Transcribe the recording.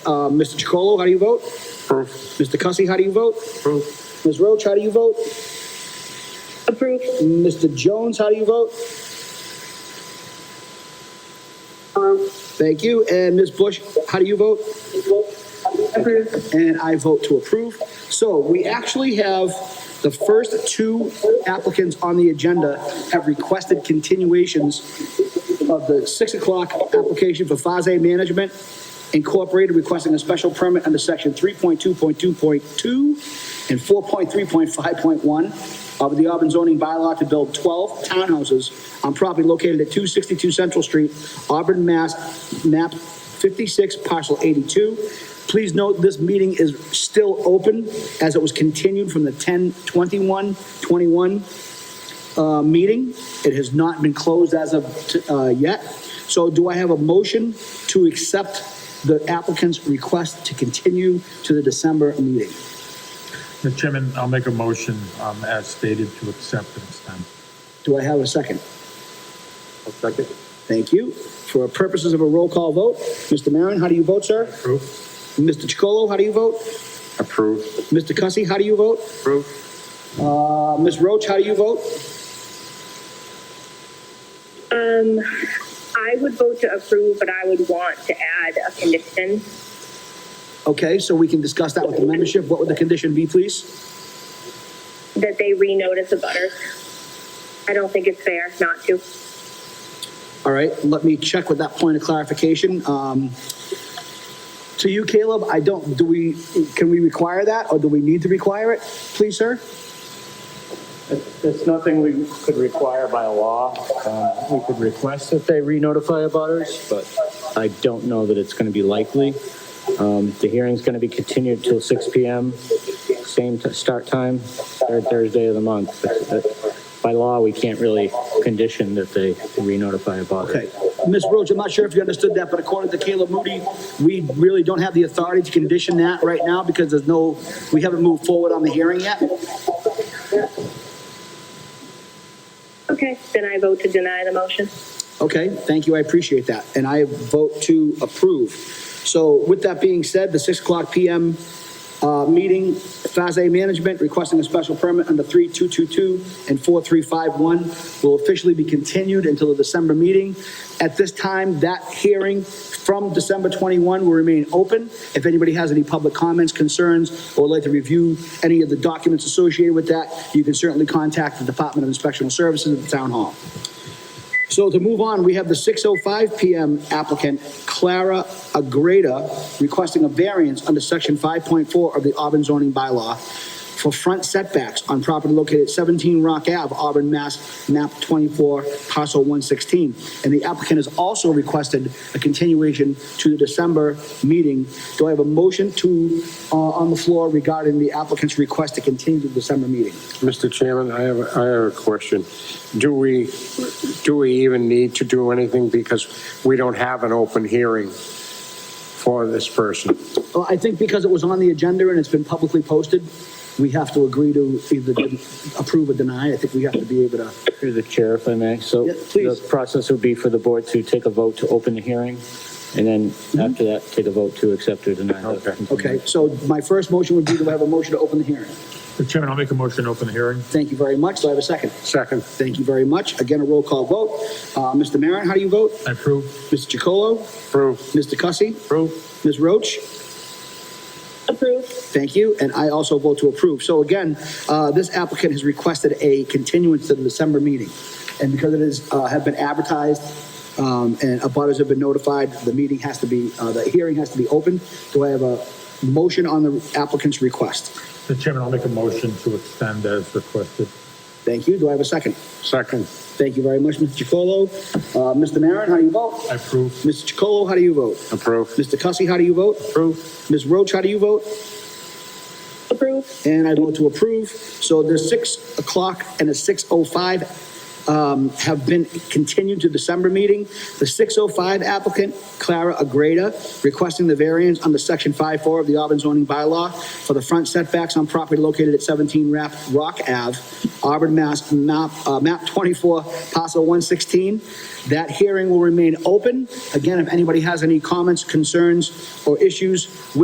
Uh, Mr. Chacolo, how do you vote? Approve. Mr. Cussy, how do you vote? Approve. Ms. Roach, how do you vote? Approve. Mr. Jones, how do you vote? Um, Thank you. And Ms. Bush, how do you vote? Approve. And I vote to approve. So we actually have the first two applicants on the agenda have requested continuations of the six o'clock application for Faze Management Incorporated requesting a special permit under section three point two point two point two and four point three point five point one of the Auburn zoning bylaw to build twelve townhouses on property located at two sixty-two Central Street, Auburn, Mass, map fifty-six, parcel eighty-two. Please note, this meeting is still open as it was continued from the 10-21-21 uh, meeting. It has not been closed as of, t- uh, yet. So do I have a motion to accept the applicant's request to continue to the December meeting? Mr. Chairman, I'll make a motion um, as stated to accept and extend. Do I have a second? I'll second. Thank you. For purposes of a roll call vote, Mr. Maron, how do you vote, sir? Approve. Mr. Chacolo, how do you vote? Approve. Mr. Cussy, how do you vote? Approve. Uh, Ms. Roach, how do you vote? Um, I would vote to approve, but I would want to add a condition. Okay, so we can discuss that with the membership. What would the condition be, please? that they renotice the butters. I don't think it's fair not to. All right, let me check with that point of clarification. Um, to you, Caleb, I don't, do we, can we require that or do we need to require it? Please, sir? It's nothing we could require by law. Um, We could request that they re-notify abutters, but I don't know that it's going to be likely. Um, The hearing's going to be continued till 6 PM, same t- start time, third Thursday of the month. But- but By law, we can't really condition that they re-notify Okay. abutters. Ms. Roach, I'm not sure if you understood that, but according to Caleb Moody, we really don't have the authority to condition that right now because there's no, we haven't moved forward on the hearing yet. Okay, then I vote to deny the motion. Okay, thank you, I appreciate that, and I vote to approve. So with that being said, the 6 o'clock PM uh, meeting, FASA Management requesting a special permit under 3222 and 4351 will officially be continued until the December meeting. At this time, that hearing from December 21 will remain open. If anybody has any public comments, concerns, or would like to review any of the documents associated with that, you can certainly contact the Department of Inspectional Services at the Town Hall. So to move on, we have the 6:05 PM applicant Clara Agreda requesting a variance under section 5.4 of the Auburn zoning bylaw for front setbacks on property located at 17 Rock Ave, Auburn, Mass, map 24, parcel 116. And the applicant has also requested a continuation to the December meeting. Do I have a motion to, uh, on the floor regarding the applicant's request to continue the December meeting? Mr. Chairman, I have, I have a question. Do we, do we even need to do anything because we don't have an open hearing for this person? Well, Uh, I think because it was on the agenda and it's been publicly posted, we have to agree to either approve or deny. I think we have to be able to, Through the chair, if I may. So Yeah, please. the process would be for the board to take a vote to open the hearing, and then after that, take a vote to accept or deny. the Okay. continuation. Mm-hmm. okay, so my first motion would be to have a motion to open the hearing. Mr. Chairman, I'll make a motion to open the hearing. Thank you very much. Do I have a second? Second, Thank you very much. Again, a roll call vote. Uh, Mr. Maron, how do you vote? I approve. Mr. Chacolo? approve. Mr. Cussy? Approve. Ms. Roach? Approve. Thank you, and I also vote to approve. So again, uh, this applicant has requested a continuance to the December meeting. And because it is, uh, have been advertised, um, and abutters have been notified, the meeting has to be, uh, the hearing has to be open. Do I have a motion on the applicant's request? Mr. Chairman, I'll make a motion to extend as requested. Thank you. Do I have a second? Second, Thank you very much, Mr. Chacolo. Uh, Mr. Maron, how do you vote? I approve. Mr. Chacolo, how do you vote? approve. Mr. Cussy, how do you vote? Approve. Ms. Roach, how do you vote? Approve. and I vote to approve. So there's six o'clock and a six oh five um, have been continued to December meeting. The 605 applicant, Clara Agreda, requesting the variance under section 5-4 of the Auburn zoning bylaw for the front setbacks on property located at 17 Rap- Rock Ave, Auburn, Mass, map, uh, map 24, parcel 116. That hearing will remain open. Again, if anybody has any comments, concerns, or issues with